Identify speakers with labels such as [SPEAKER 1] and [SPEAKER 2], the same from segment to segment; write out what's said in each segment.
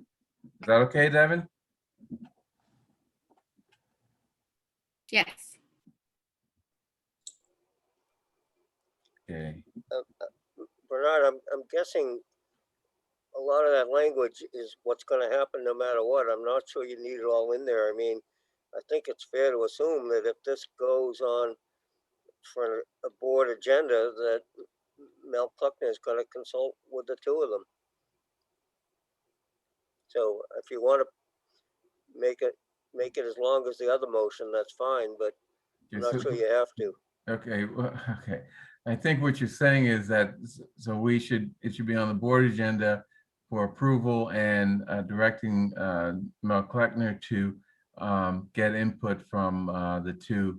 [SPEAKER 1] Is that okay, Devin?
[SPEAKER 2] Yes.
[SPEAKER 1] Okay,
[SPEAKER 3] Bernard, I'm, I'm guessing a lot of that language is what's gonna happen no matter what. I'm not sure you need it all in there. I mean, I think it's fair to assume that if this goes on for a board agenda, that Mel Pluckner is gonna consult with the two of them. So if you wanna make it, make it as long as the other motion, that's fine, but I'm
[SPEAKER 1] Okay,
[SPEAKER 3] not
[SPEAKER 1] so-
[SPEAKER 3] sure you have to.
[SPEAKER 1] Okay, well, okay. I think what you're saying is that, s- so we should, it should be on the board agenda for approval and uh, directing uh, Mel Kleckner to um, get input from uh, the two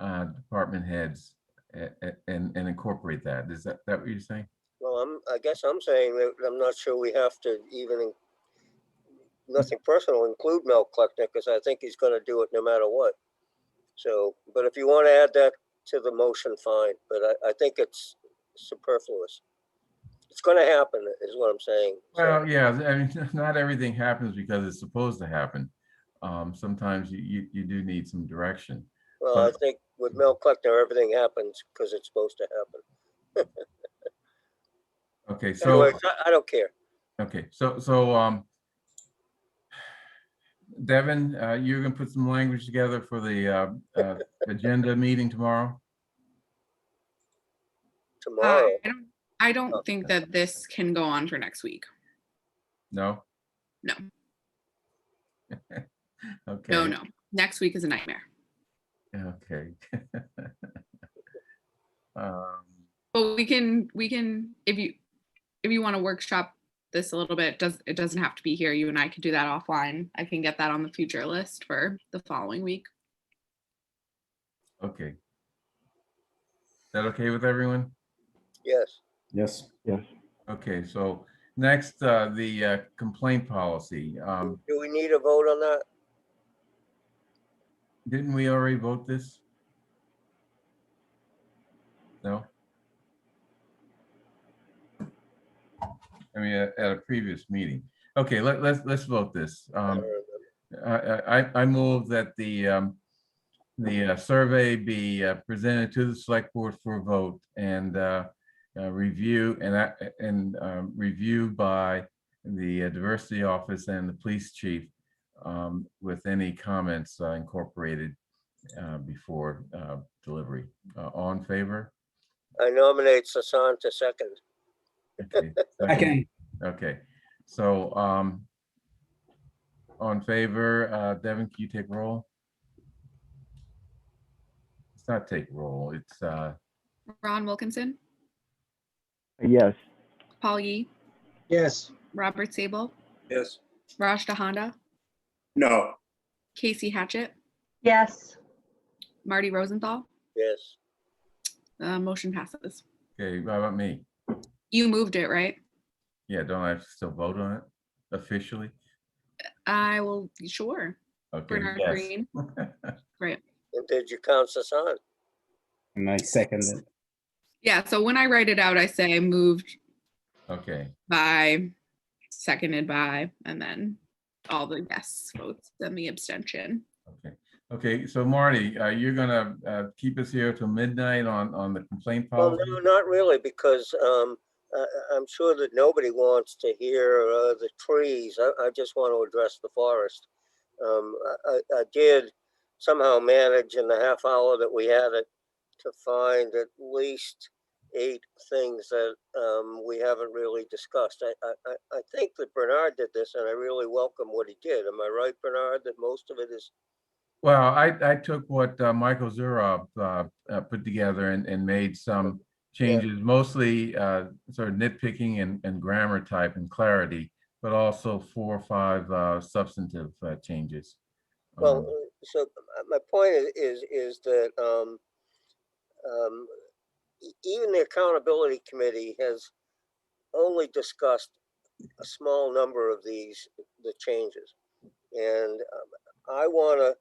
[SPEAKER 1] uh, department heads a- a- and and incorporate that. Is that, that what you're saying?
[SPEAKER 3] Well, I'm, I guess I'm saying that I'm not sure we have to even, in- nothing personal, include Mel Kleckner, because I think he's gonna do it no matter what. So, but if you want to add that to the motion, fine, but I, I think it's superfluous. It's gonna happen, is what I'm saying. so-
[SPEAKER 1] Well, yeah, I mean, not everything happens because it's supposed to happen. Um, Sometimes you- you, you do need some direction.
[SPEAKER 3] Well, I think with Mel Kleckner, everything happens because it's supposed to happen.
[SPEAKER 1] Okay, so.
[SPEAKER 3] Anyway, I, I don't care.
[SPEAKER 1] Okay, so, so, um, Devin, uh, you're gonna put some language together for the, uh, uh, agenda meeting tomorrow?
[SPEAKER 3] Tomorrow,
[SPEAKER 2] Uh, I don't- I don't
[SPEAKER 3] Okay.
[SPEAKER 2] think that this can go on for next week.
[SPEAKER 1] No?
[SPEAKER 2] No.
[SPEAKER 1] Okay.
[SPEAKER 2] No, no. Next week is a nightmare.
[SPEAKER 1] Okay. Um,
[SPEAKER 2] But we can, we can, if you, if you want to workshop this a little bit, does, it doesn't have to be here. You and I could do that offline. I can get that on the future list for the following week.
[SPEAKER 1] Okay. Is that okay with everyone?
[SPEAKER 3] yes.
[SPEAKER 4] Yes. Yes.
[SPEAKER 1] Okay, so next, uh, the uh, complaint policy. Um,
[SPEAKER 3] Do we need a vote on that?
[SPEAKER 1] didn't we already vote this? No? I mean, at at a previous meeting. Okay, let, let's, let's vote this.
[SPEAKER 3] I
[SPEAKER 1] Um,
[SPEAKER 3] don't remember.
[SPEAKER 1] I, I, I- I move that the, um, the uh, survey be uh, presented to the select board for a vote and, uh, uh, review and, I- and, um, review by the uh, diversity office and the police chief, um, with any comments uh, incorporated, uh, before, uh, delivery. Uh, all in favor?
[SPEAKER 3] I nominate Sasan to second.
[SPEAKER 1] Okay.
[SPEAKER 4] Second.
[SPEAKER 1] Okay, so, um, on favor, uh, Devin, can you take roll? It's not take roll, it's, uh,
[SPEAKER 2] Ron Wilkinson,
[SPEAKER 5] Yes.
[SPEAKER 2] Paul Yee,
[SPEAKER 5] Yes.
[SPEAKER 2] Robert Sable,
[SPEAKER 6] Yes.
[SPEAKER 2] Raj DeHonda,
[SPEAKER 6] No.
[SPEAKER 2] Casey Hatchet,
[SPEAKER 7] yes.
[SPEAKER 2] Marty Rosenthal.
[SPEAKER 3] Yes,
[SPEAKER 2] Uh, motion passes.
[SPEAKER 1] okay, how about me?
[SPEAKER 2] You moved it, right?
[SPEAKER 1] Yeah, don't I still vote on it officially?
[SPEAKER 2] I will, sure.
[SPEAKER 1] Okay,
[SPEAKER 2] Bernard
[SPEAKER 1] yes.
[SPEAKER 2] Green. Right.
[SPEAKER 3] and did you count Sasan?
[SPEAKER 4] And I second it.
[SPEAKER 2] Yeah, so when I write it out, I say moved
[SPEAKER 1] Okay,
[SPEAKER 2] by, seconded by, and then all the yes votes and the abstention.
[SPEAKER 1] okay, okay, so Marty, uh, you're gonna, uh, keep us here till midnight on, on the complaint
[SPEAKER 3] Well,
[SPEAKER 1] policy?
[SPEAKER 3] no, not really, because um, I, I- I'm sure that nobody wants to hear uh, the trees. I, I just want to address the forest. Um, I, I- I did somehow manage in the half hour that we had it to find at least eight things that um, we haven't really discussed. I, I, I- I think that Bernard did this, and I really welcome what he did. Am I right, Bernard, that most of it is
[SPEAKER 1] Well, I, I took what uh, Michael Zurov uh, uh, put together and, and made some changes, mostly uh, sort of nitpicking and, and grammar type and clarity, but also four or five uh, substantive uh, changes.
[SPEAKER 3] Well,
[SPEAKER 1] Um,
[SPEAKER 3] uh, so uh, my point is, is, is that, um, um, e- even the accountability committee has only discussed a small number of these, the changes. And um, I want to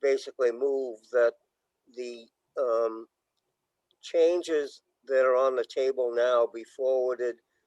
[SPEAKER 3] basically move that the, um, changes that are on the table now be forwarded